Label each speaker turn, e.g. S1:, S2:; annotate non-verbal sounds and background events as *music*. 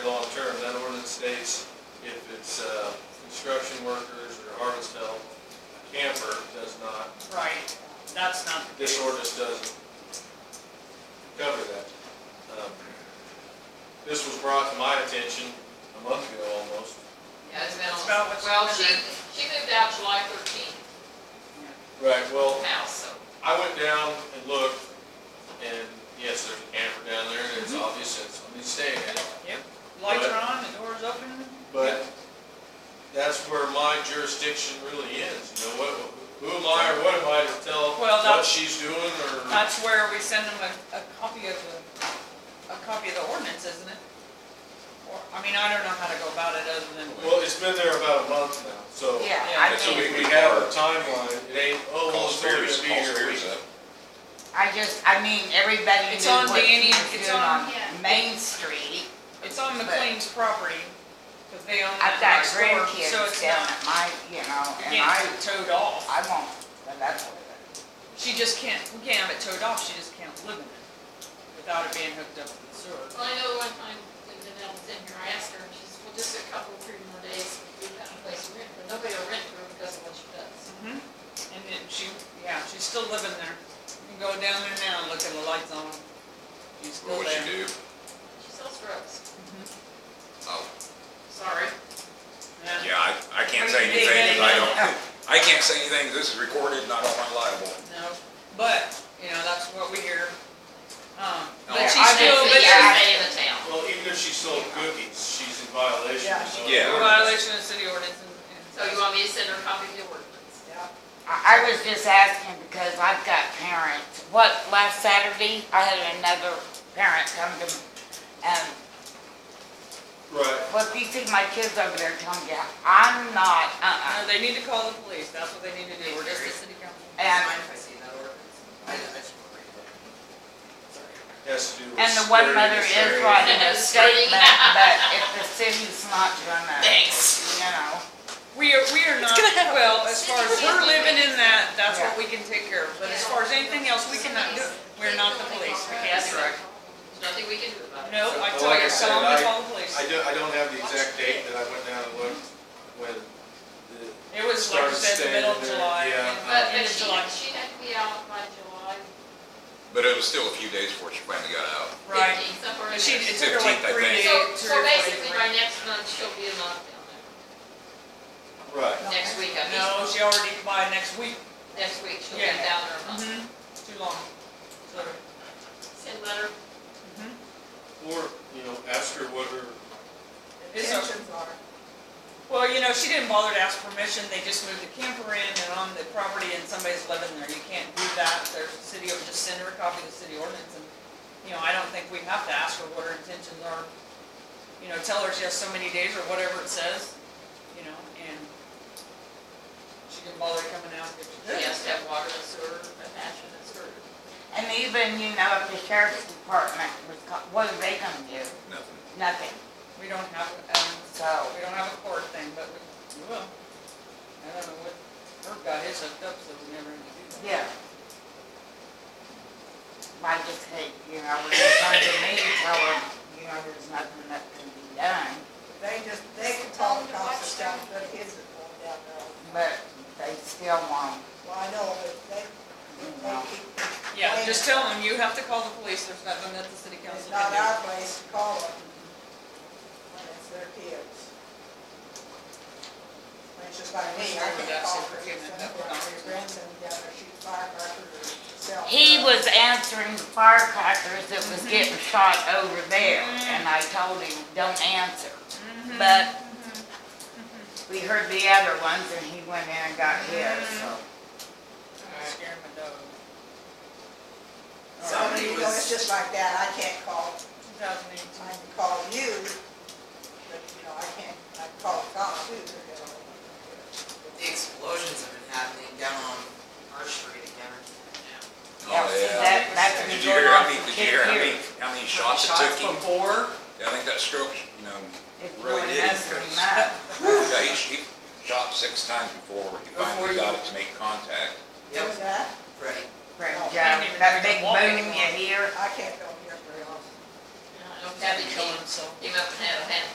S1: Long-term, that ordinance states if it's uh, construction workers or harvest help, camper does not,
S2: Right, that's not the
S1: this
S2: case.
S1: ordinance doesn't cover that. Um, This was brought to my attention a month ago almost.
S3: Yeah, it's been,
S2: It's about
S3: on-
S2: what's
S3: well,
S2: been
S3: she, she moved out July thirteenth
S1: Right. Well,
S3: now, so.
S1: I went down and looked, and yes, there's a camper down there, and it's obvious that somebody's staying in it.
S2: Yep, lights are on, the door's open.
S1: But that's where my jurisdiction really ends, you know, what, who am I or what am I to tell
S2: Well,
S1: what
S2: that-
S1: she's doing or?
S2: That's where we send them a, a copy of the, a copy of the ordinance, isn't it? Or, I mean, I don't know how to go about it other than.
S1: Well, it's been there about a month now, so.
S4: Yeah,
S2: Yeah,
S4: I
S1: And so we,
S4: mean,
S1: we have a timeline, it ain't, oh, well, it's gonna be here. We-
S4: I just, I mean, everybody
S2: It's
S4: knew
S2: on
S4: what she
S2: Danny,
S4: was
S2: it's
S4: doing
S2: on-
S4: on Main Street.
S2: It's on McLean's property, because they own
S4: I've
S2: that
S4: got
S2: next door, so
S4: grandkids
S2: it's
S4: down
S2: not,
S4: at my, you know,
S2: you
S4: and
S2: can't
S4: I,
S2: have it towed off.
S4: I won't, but that's what it is.
S2: She just can't, we can't have it towed off, she just can't live in it without it being hooked up to the sewer.
S3: Well, I know one time when Danelle was in here, I asked her, and she said, well, just a couple, three more days, we've got a place to rent, but nobody will rent her because of what she does.
S2: Mhm. And then she, yeah, she's still living there. You can go down there now and look at the lights on. She's still
S5: What would
S2: there. Mm-hmm.
S5: you do?
S3: She sells drugs,
S5: Oh,
S3: sorry.
S5: yeah, I, I can't say
S2: What do you
S5: anything,
S2: think,
S5: 'cause I
S2: Betty?
S5: don't, I can't say anything, 'cause this is recorded, and I don't want liable.
S2: No, but, you know, that's what we hear. Um,
S5: No,
S2: But she's
S4: I
S2: still, but
S3: Obviously,
S4: think that-
S3: you're
S2: she's
S3: staying in the town.
S1: Well, even if she sold cookies, she's in violation.
S2: Yeah,
S1: of
S5: she-
S1: the
S2: in
S5: Yeah.
S1: ordinance.
S2: violation of city ordinance and.
S3: So you want me to send her a copy of the ordinance?
S2: Yeah.
S4: I, I was just asking because I've got parents, what, last Saturday, I had another parent come to, um,
S1: Right,
S4: well, if you see my kids over there, tell them, yeah, I'm not,
S3: uh,
S2: No,
S4: uh-uh.
S2: they need to call the police, that's what they need to do, we're just a city council.
S4: And,
S1: has to do with.
S4: and the one
S1: their
S4: mother is
S1: administrative-
S4: writing
S2: *laughs*
S4: a statement, but if the city's not gonna,
S3: Thanks.
S4: you know.
S2: We are, we are not, well, as far as we're living in that, that's what
S4: Yeah.
S2: we can take care of, but as far as anything else, we cannot do it. We're not the police, we can't direct.
S3: Nothing we can do about it.
S2: No, I
S1: Well,
S2: tell
S1: like I
S2: you,
S1: said,
S2: tell them
S1: I-
S2: to call the police.
S1: I don't, I don't have the exact date that I went down and looked when the
S2: It was like I
S1: Started
S2: said, the
S1: staying
S2: middle of
S1: there,
S2: July,
S1: yeah.
S2: and
S3: But,
S2: Uh, end
S3: but
S2: of
S3: she,
S2: July.
S3: she had to be out by July
S5: But it was still a few days before she finally got out.
S2: Right.
S3: fifteenth, somewhere in
S2: But
S3: there.
S2: she, it took her like three
S5: 15th, I think.
S2: days,
S3: So,
S2: two
S3: so
S2: or
S3: basically,
S2: three.
S3: by next month, she'll be in lockdown,
S1: Right.
S3: next week, I mean,
S2: No, she already, by next week,
S3: next week, she'll be
S2: Yeah.
S3: down there a month.
S2: Mhm. too long. So, Mm-hmm.
S3: Send letter, Mm-hmm.
S2: mhm.
S1: Or, you know, ask her what her,
S2: It's okay. Well, you know, she didn't bother to ask permission, they just moved the camper in and on the property and somebody's living there, you can't do that, there's city, or just send her a copy of the city ordinance and, you know, I don't think we have to ask her what her intentions are. You know, tell her she has so many days or whatever it says, you know, and she didn't bother coming out if she
S3: she
S2: did.
S3: has to have water and sewer, a passion and sewer.
S4: And even, you know, if the sheriff's department was, co- what are they gonna do?
S5: Nothing.
S4: Nothing,
S2: We don't have, um,
S4: so.
S2: we don't have a court thing, but we, we will. I don't know what, her guy is hooked up, so we never have to do that.
S4: Yeah. I just hate, you know, when they come to me, tell them, you know, there's nothing that can be done,
S6: They just, they can talk about stuff, but his is going down
S4: but
S6: there.
S4: they still won't.
S6: Well, I know, but they, they keep,
S2: Yeah, just tell them, you have to call the police, there's nothing that the city
S6: it's
S2: council
S6: not
S2: can
S6: our place to call them when it's their kids. It's just like me, I can't call for him, except for my grandson down there shoots firecrackers or sells.
S4: He was answering the firecrackers that was getting
S2: Mm-hmm.
S4: shot over there, and I told him, don't answer.
S2: do.
S4: But
S2: Mm-hmm.
S4: we heard the other ones, and he went in and got his, so.
S2: Scaring my dog.
S6: So, you know, it's just like that, I can't call,
S2: Two thousand
S6: I
S2: eighteen.
S6: can call you, but, you know, I can't, I can call the cops too, they're gonna-
S7: The explosions have been happening down on our street again.
S4: Yeah,
S5: Oh,
S4: see,
S5: yeah.
S4: that- that's
S5: Did
S4: been
S5: you
S4: going
S5: hear,
S4: on
S5: how many,
S4: for
S5: did
S4: 10
S5: you hear how many,
S4: years.
S5: how many shots it took
S7: Shots
S5: him?
S7: before,
S5: Yeah, I think that stroke, you know,
S4: It's
S5: Really
S4: going
S5: did.
S4: mess him
S5: *laughs*
S4: up.
S5: yeah, he, he shot six times before he
S7: Before
S5: finally
S7: you-
S5: got it to make contact.
S6: What was that?
S7: right,
S4: Right,
S6: Oh,
S4: Joe,
S2: can't even
S4: that
S2: bring a
S4: big
S2: walk
S4: boom
S2: anymore.
S4: you hear,
S6: I can't go here very often.
S3: And I don't That'd be
S2: kill
S3: neat.
S2: himself.
S3: Came up and had a hand